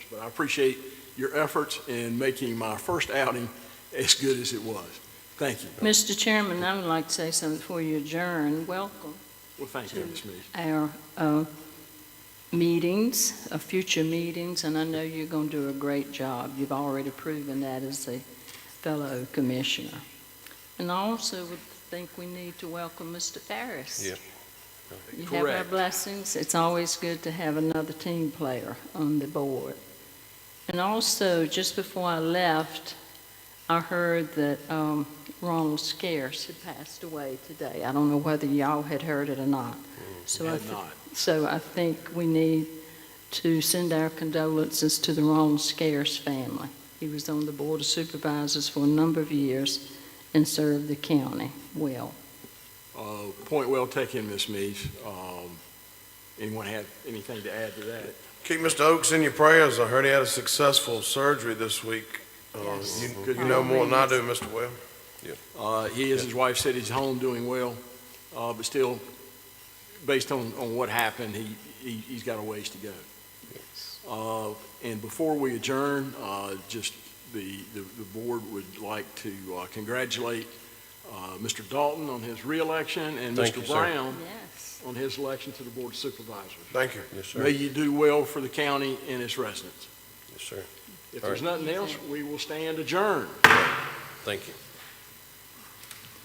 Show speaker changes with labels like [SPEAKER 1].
[SPEAKER 1] But I appreciate your efforts in making my first outing as good as it was. Thank you.
[SPEAKER 2] Mr. Chairman, I would like to say something before you adjourn. Welcome
[SPEAKER 1] Well, thank you, Ms. Mees.
[SPEAKER 2] our uh, meetings, uh, future meetings, and I know you're going to do a great job. You've already proven that as a fellow commissioner. And I also would think we need to welcome Mr. Farris.
[SPEAKER 3] Yeah.
[SPEAKER 2] You have our
[SPEAKER 1] Correct.
[SPEAKER 2] blessings. It's always good to have another team player on the board. And also, just before I left, I heard that um, Ronald Scarce had passed away today. I don't know whether y'all had heard it or not. So I
[SPEAKER 1] Had
[SPEAKER 2] thi-
[SPEAKER 1] not.
[SPEAKER 2] So I think we need to send our condolences to the Ronald Scarce family. He was on the Board of Supervisors for a number of years and served the county well.
[SPEAKER 1] Uh, Point well taken, Ms. Mees. Um, Anyone have anything to add to that?
[SPEAKER 3] Keep Mr. Oakes in your prayers. I heard he had a successful surgery this week. Uh,
[SPEAKER 2] Yes.
[SPEAKER 3] you- You know more than I do, Mr. Webb.
[SPEAKER 1] Uh, He is, his wife said he's home doing well, uh, but still, based on, on what happened, he, he, he's got a ways to go. Uh, And before we adjourn, uh, just the, the, the board would like to uh, congratulate uh, Mr. Dalton on his reelection and
[SPEAKER 3] Thank
[SPEAKER 1] Mr.
[SPEAKER 3] you, sir.
[SPEAKER 1] Brown
[SPEAKER 2] Yes.
[SPEAKER 1] on his election to the Board of Supervisors.
[SPEAKER 3] Thank you. Yes,
[SPEAKER 1] May you do well for the county and its residents.
[SPEAKER 3] Yes, sir.
[SPEAKER 1] If
[SPEAKER 3] All
[SPEAKER 1] there's nothing else, we will stand adjourned.
[SPEAKER 3] Thank you.